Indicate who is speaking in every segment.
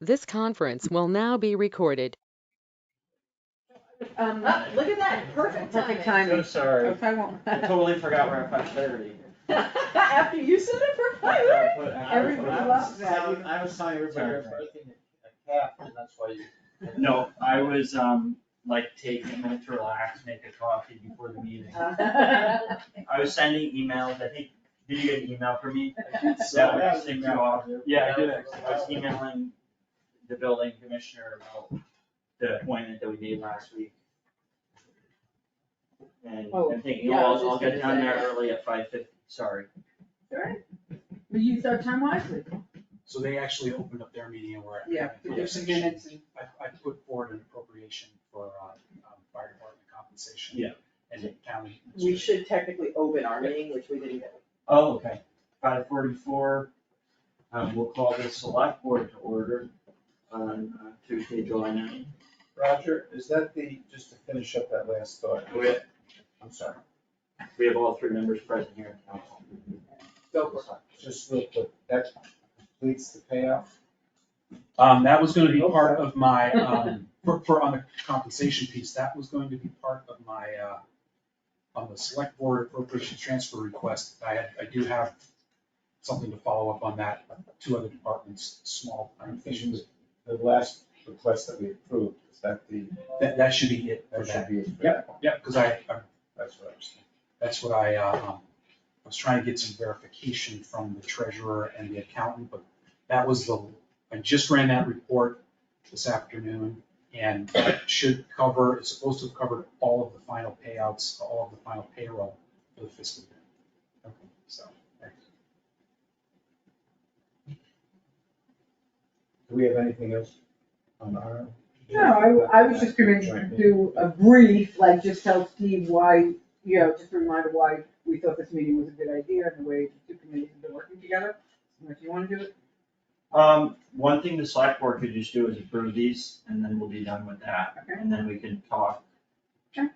Speaker 1: This conference will now be recorded.
Speaker 2: Um,
Speaker 3: Oh, look at that, perfect
Speaker 2: perfect
Speaker 3: timing.
Speaker 4: So
Speaker 2: timing.
Speaker 4: sorry,
Speaker 2: Okay, won't.
Speaker 4: I totally forgot we're at five thirty.
Speaker 3: After you said it for five minutes. Everybody loves that.
Speaker 4: I was telling everybody.
Speaker 5: You're birthing a calf, and that's why you.
Speaker 4: No, I was, um, like, taking a minute to relax, make a coffee before the meeting.
Speaker 3: Uh,
Speaker 4: I was sending emails, I think, did you get an email from me? That would just take too long. Yeah, I did actually. I was emailing the building commissioner about the appointment that we made last week. And
Speaker 2: Oh,
Speaker 4: I'm thinking,
Speaker 3: yeah, I was
Speaker 4: well, I'll
Speaker 3: just
Speaker 4: get
Speaker 3: gonna
Speaker 4: down there
Speaker 3: say.
Speaker 4: early at five fifty, sorry.
Speaker 3: But you use our time wisely.
Speaker 5: So they actually opened up their meeting and we're.
Speaker 2: Yeah, there's some minutes and.
Speaker 5: I, I put forward an appropriation for, uh, um, fire department compensation.
Speaker 4: Yeah.
Speaker 5: And the county.
Speaker 3: We should technically open our meeting, which we didn't.
Speaker 4: Oh, okay. Five forty-four, um, we'll call the select board to order on uh, Tuesday, July ninth.
Speaker 5: Roger, is that the, just to finish up that last thought?
Speaker 4: We have,
Speaker 5: I'm sorry,
Speaker 4: we have all three members present here at council.
Speaker 3: Go for
Speaker 5: just real quick, that completes the payoff?
Speaker 6: Um, that was gonna be part of my, um, for, for on the compensation piece, that was going to be part of my, uh, on the select board appropriation transfer request, I had, I do have something to follow up on that, two other departments, small, i
Speaker 5: The last request that we approved, is that the,
Speaker 6: that, that should be it for
Speaker 5: that should
Speaker 6: that.
Speaker 5: be.
Speaker 6: Yeah, cause I, I-
Speaker 5: That's what I was thinking.
Speaker 6: that's what I, uh, um, I was trying to get some verification from the treasurer and the accountant, but that was the, I just ran that report this afternoon, and that should cover, it's supposed to have covered all of the final payouts, all of the final payroll for the fiscal year. Okay, So,
Speaker 5: Do we have anything else on our?
Speaker 2: No, I, I was just gonna do a brief, like, just tell Steve why, you know, just a reminder why we thought this meeting was a good idea and the way the two committees have been working together. If you wanna do it,
Speaker 4: Um, one thing the select board could just do is approve these and then we'll be done with that.
Speaker 2: Okay.
Speaker 4: And then we can talk
Speaker 2: Sure.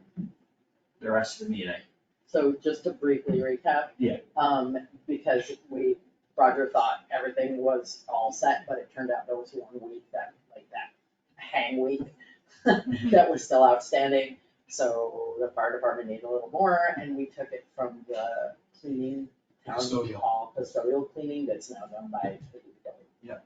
Speaker 4: the rest of the meeting.
Speaker 3: So just to briefly recap.
Speaker 4: Yeah.
Speaker 3: Um, because we, Roger thought everything was all set, but it turned out there was one week that, like that hang week that was still outstanding. So the fire department needed a little more and we took it from the cleaning, town
Speaker 6: Custodial.
Speaker 3: hall custodial cleaning that's now done by the DPW.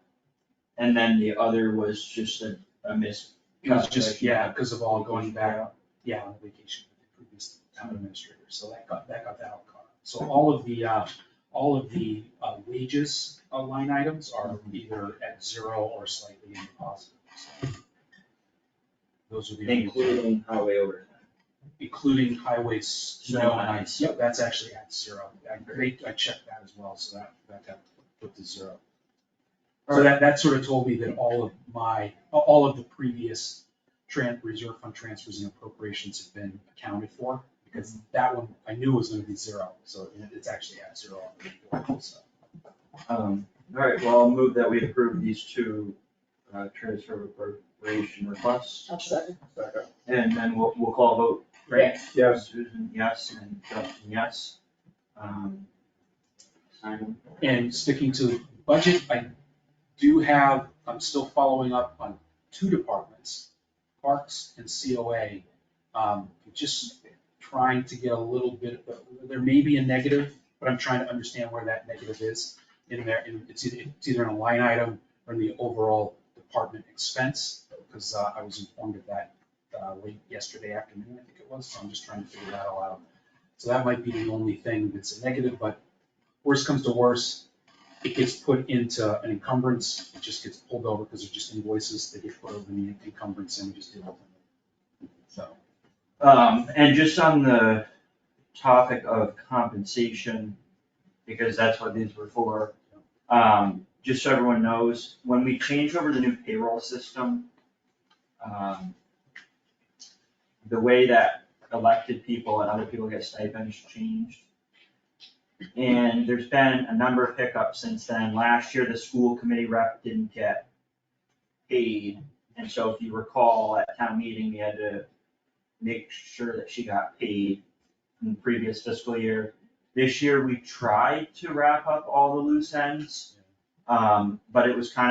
Speaker 4: And then the other was just a, a miss.
Speaker 6: it was just, yeah, because of all going back, yeah, on vacation with the previous town administrator, so that got, that got that all caught up. So all of the, uh, all of the uh, wages uh, line items are either at zero or slightly in the positive. so. Those are the. only-
Speaker 4: Including highway overtime.
Speaker 6: Including highways, snow and ice,
Speaker 4: Yep.
Speaker 6: yep, that's actually at zero, I, they- I checked that as well, so that, that got put to zero. So that, that sort of told me that all of my, all of the previous tran, reserve fund transfers and appropriations have been accounted for, because that one, I knew was gonna be zero, so it- it's actually at zero. on the report, so.
Speaker 4: Um, all right, well, I'll move that we approve these two, uh, transfer appropriation requests,
Speaker 3: I'll second.
Speaker 4: and then we'll, we'll call a vote. Right?
Speaker 5: Yes.
Speaker 4: Susan, yes, and Justin, yes. Um, Simon?
Speaker 6: And sticking to the budget, I do have, I'm still following up on two departments, parks and COA. Um, Just trying to get a little bit, there may be a negative, but I'm trying to understand where that negative is in there. And It's either, it's either in a line item or in the overall department expense, because uh, I was informed of that uh, late yesterday afternoon, I think it was, so I'm just trying to figure that all out. So that might be the only thing that's a negative, but worst comes to worst, it gets put into an encumbrance, it just gets pulled over because they're just invoices, they get put over in the encumbrance and we just deal with them. So,
Speaker 4: Um, and just on the topic of compensation, because that's what these were for. Um, just so everyone knows, when we change over the new payroll system, um, the way that elected people and other people get stipends changed. And there's been a number of hiccups since then. Last year, the school committee rep didn't get paid. And so if you recall, at town meeting, we had to make sure that she got paid in the previous fiscal year. This year, we tried to wrap up all the loose ends, um, but it was kind of.